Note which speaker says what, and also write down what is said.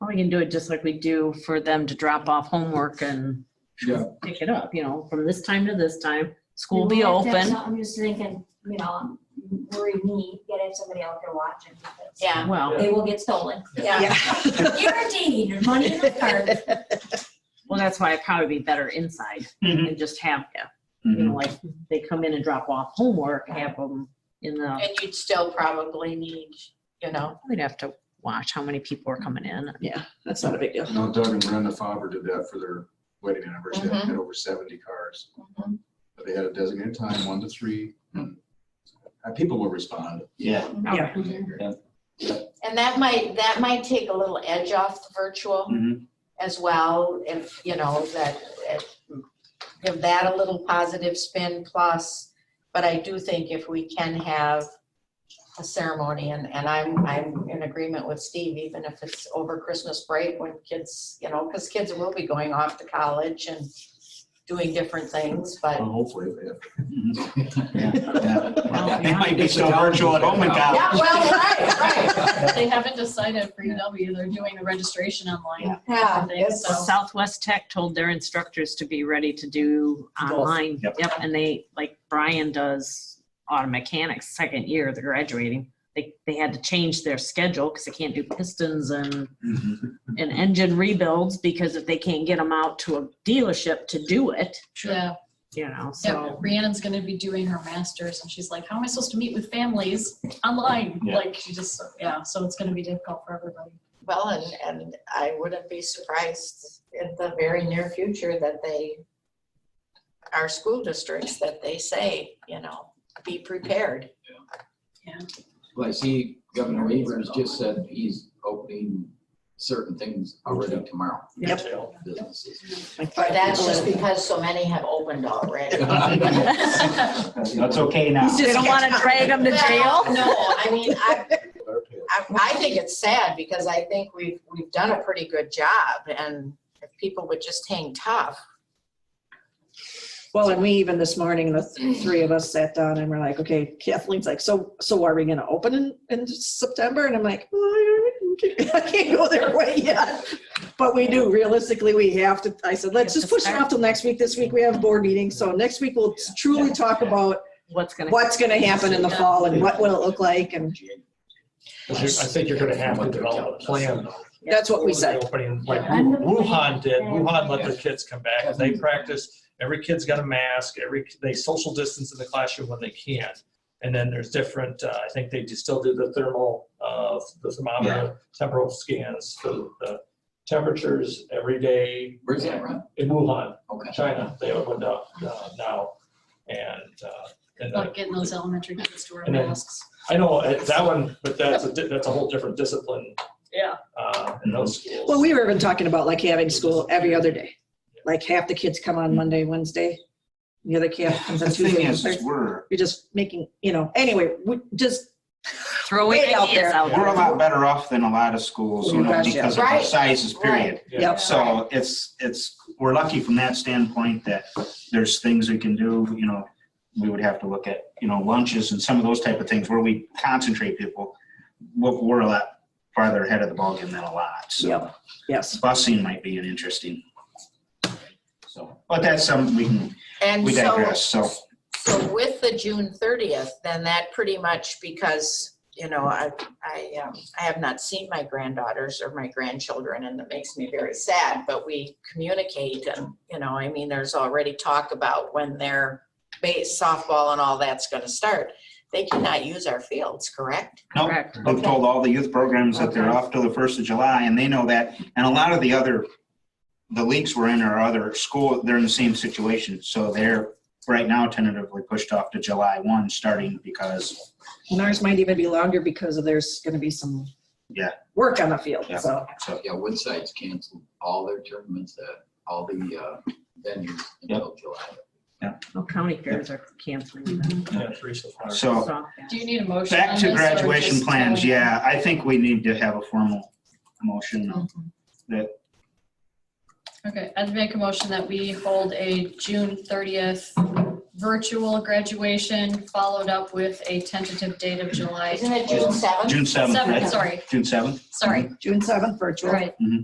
Speaker 1: we can do it just like we do for them to drop off homework and
Speaker 2: Yeah.
Speaker 1: pick it up, you know, from this time to this time. School
Speaker 3: We'll
Speaker 1: be
Speaker 3: have to have
Speaker 1: open.
Speaker 3: some- I'm just thinking, you know, I'm worried me, gotta have somebody out there watching. because
Speaker 4: Yeah,
Speaker 1: Well,
Speaker 3: They will get stolen.
Speaker 4: yeah.
Speaker 3: Guaranteed, there's money in the card.
Speaker 1: well, that's why it'd probably be better inside
Speaker 2: Mhm.
Speaker 1: and just have, yeah, you
Speaker 5: Mm-hmm.
Speaker 1: know, like they come in and drop off homework, have them in the,
Speaker 4: And you'd still probably need, you know,
Speaker 1: we'd have to watch how many people are coming in.
Speaker 6: Yeah, that's not a big deal.
Speaker 2: You know, Doug and Brenda Faber did that for their
Speaker 6: Mm-hmm.
Speaker 2: wedding anniversary. They
Speaker 7: Mm-hmm.
Speaker 4: Mhm.
Speaker 2: had over seventy cars.
Speaker 4: Mhm.
Speaker 2: But they had a designated time, one to three. Uh, People will respond.
Speaker 5: Yeah,
Speaker 1: Okay.
Speaker 4: and that might, that might take a little edge off the virtual
Speaker 6: Mm-hmm.
Speaker 5: Mhm.
Speaker 4: as well, if, you know, that, if- give that a little positive spin plus. But I do think if we can have a ceremony, and, and I'm, I'm in agreement with Steve, even if it's over Christmas break when kids, you know, because kids will be going off to college and doing different things, but.
Speaker 2: Well, Hopefully, they have.
Speaker 6: Mm-hmm.
Speaker 5: yeah, yeah.
Speaker 1: Well,
Speaker 5: It might be so virtual at home and
Speaker 4: Yeah,
Speaker 5: college.
Speaker 4: well, right, right.
Speaker 8: They haven't decided for UW, they're doing the registration online.
Speaker 4: Yeah,
Speaker 8: it's-
Speaker 4: so-
Speaker 1: Southwest Tech told their instructors to be ready to do online.
Speaker 5: Yep.
Speaker 1: Yep, and they, like Brian does auto mechanics, second year, they're graduating. They, they had to change their schedule because they can't do pistons and,
Speaker 6: Mm-hmm.
Speaker 5: Mhm.
Speaker 1: and engine rebuilds because if they can't get them out to a dealership to do it,
Speaker 8: Yeah,
Speaker 1: you know,
Speaker 8: yeah,
Speaker 1: so.
Speaker 8: Rhiannon's gonna be doing her masters and she's like, how am I supposed to meet with families online?
Speaker 5: Yeah.
Speaker 8: Like, she just, yeah, so it's gonna be difficult for everybody.
Speaker 4: Well, and, and I wouldn't be surprised in the very near future that they, our school districts, that they say, you know, be prepared.
Speaker 9: Well, I see Governor Evers just said he's opening certain things already tomorrow.
Speaker 6: Yep.
Speaker 9: Businesses.
Speaker 4: But that's just because so many have opened already.
Speaker 8: Yeah,
Speaker 5: That's okay now.
Speaker 1: They don't want to drag them to jail.
Speaker 4: Well, No, I mean, I,
Speaker 2: their tail.
Speaker 4: I, I think it's sad because I think we've, we've done a pretty good job and if people would just hang tough.
Speaker 6: Well, and we even this morning, the th- three of us sat down and we're like, okay, Kathleen's like, so, so are we gonna open in, in September? And I'm like, "Well, I can't- I can't go their way yet. But we do realistically, we have to, I said, let's just push it off till next week. This week we have board meetings, so next week we'll truly talk about
Speaker 1: What's gonna,
Speaker 6: what's gonna happen in the fall and what will it look like and
Speaker 7: I think you're gonna have to develop a plan though.
Speaker 6: that's what we
Speaker 7: for
Speaker 6: said.
Speaker 7: the Opening, like Wu- Wuhan did, Wuhan let their kids come back, and
Speaker 9: Mm-hmm.
Speaker 7: they practice, every kid's got a mask, every, they social distance in the classroom when they can. And then there's different, uh, I think they do still do the thermal, uh, the thermometer, temporal scans for the temperatures every day.
Speaker 9: Where's that from?
Speaker 7: In Wuhan,
Speaker 9: Okay.
Speaker 7: China, they opened up, uh, now, and, uh, and then-
Speaker 8: Like getting those elementary kids to wear
Speaker 7: And then-
Speaker 8: masks.
Speaker 7: I know, uh, that one, but that's a, di- that's a whole different discipline,
Speaker 8: Yeah.
Speaker 7: uh, in those schools.
Speaker 6: Well, we were even talking about like having school every other day. Like half the kids come on Monday, Wednesday, the other half
Speaker 5: Hmm.
Speaker 6: comes
Speaker 5: The
Speaker 6: on Tuesday.
Speaker 5: thing
Speaker 6: and
Speaker 5: is, is
Speaker 6: Thursday.
Speaker 5: we're,
Speaker 6: You're just making, you know, anyway, we just
Speaker 1: throw
Speaker 6: Way out
Speaker 1: ideas
Speaker 6: there.
Speaker 1: out
Speaker 5: we're a
Speaker 1: there.
Speaker 5: lot better off than a lot of schools, you know,
Speaker 6: Right.
Speaker 5: because of our
Speaker 4: Right.
Speaker 5: sizes, period.
Speaker 6: Yep.
Speaker 5: So it's, it's, we're lucky from that standpoint that there's things we can do, you know, we would have to look at, you know, lunches and some of those type of things where we concentrate people. We're, we're a lot farther ahead of the ballgame than a lot, so
Speaker 6: Yep. Yes.
Speaker 5: busing might be an interesting. So, but that's something we can,
Speaker 4: And
Speaker 5: we
Speaker 4: so.
Speaker 5: digress, so.
Speaker 4: So with the June thirtieth, then that pretty much because, you know, I, I, um, I have not seen my granddaughters or my grandchildren and that makes me very sad, but we communicate and, you know, I mean, there's already talk about when their base softball and all that's gonna start. They cannot use our fields, correct?
Speaker 5: Nope.
Speaker 1: Correct.
Speaker 5: I've told all the youth programs that they're
Speaker 4: Okay.
Speaker 5: off till the first of July, and they know that. And a lot of the other, the leagues we're in are other school, they're in the same situation. So they're right now tentatively pushed off to July one, starting because,
Speaker 6: And ours might even be longer because of there's gonna be some.
Speaker 5: Yeah.
Speaker 6: Work on the field,
Speaker 5: Yeah.
Speaker 6: so.
Speaker 5: so,
Speaker 9: Yeah, Woodside's canceled all their tournaments at all the uh, venues until July.
Speaker 1: Well, County fairs are canceling them.
Speaker 7: Yeah, three so far.
Speaker 5: so.
Speaker 1: So, yeah.
Speaker 8: Do you need a motion on
Speaker 5: Back
Speaker 8: this?
Speaker 5: to
Speaker 8: or
Speaker 5: graduation
Speaker 8: just
Speaker 5: plans,
Speaker 8: telling-
Speaker 5: yeah, I think we need to have a formal motion.
Speaker 8: Okay, I'd make a motion that we hold a June thirtieth virtual graduation, followed up with a tentative date of July.
Speaker 4: Isn't it June seventh?
Speaker 5: June seventh,
Speaker 8: Seventh,
Speaker 5: right?
Speaker 8: sorry,
Speaker 5: June seventh?
Speaker 8: sorry,
Speaker 6: June seventh virtual.
Speaker 8: right.